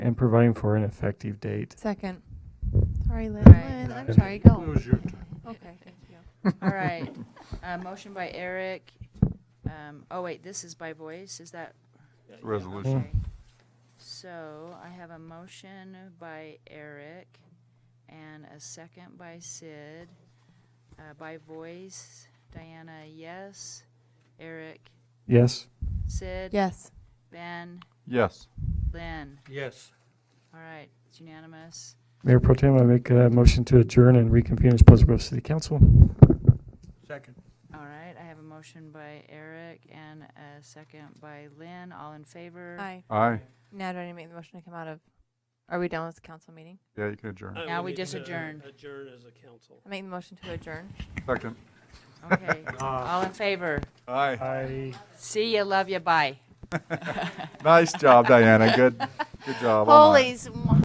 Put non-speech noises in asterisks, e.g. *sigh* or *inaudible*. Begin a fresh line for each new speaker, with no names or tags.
providing for an effective date.
Second. Sorry, Lynn.
All right.
Lynn, I'm
Second.
sorry, go.
It was your turn.
Okay, thank you.
All right. Uh, Motion by Eric. Um, Oh, wait, this is by voice, is that?
Resolution.
Okay. So I have a motion by Eric and a second by Sid. Uh, By voice, Diana, yes. Eric,
Yes?
Sid?
Yes.
Ben,
Yes.
Lynn.
Yes.
All right, it's unanimous.
Mayor Pro Tem, I make a motion to adjourn and reconvene as Pleasant Grove City Council.
Second.
All right, I have a motion by Eric and a second by Lynn. All in favor?
Aye.
Aye.
Now, do I need to make the motion to come out of, are we done with the council meeting?
Yeah, you can adjourn.
Uh,
Now we
need
just
to
adjourn.
Adjourn as a council.
I make the motion to adjourn.
Second.
*laughs*
Okay, all in favor?
Aye.
Aye.
See ya, love ya, bye.
Nice job, Diana. Good, good job. on that.
Holy, sm-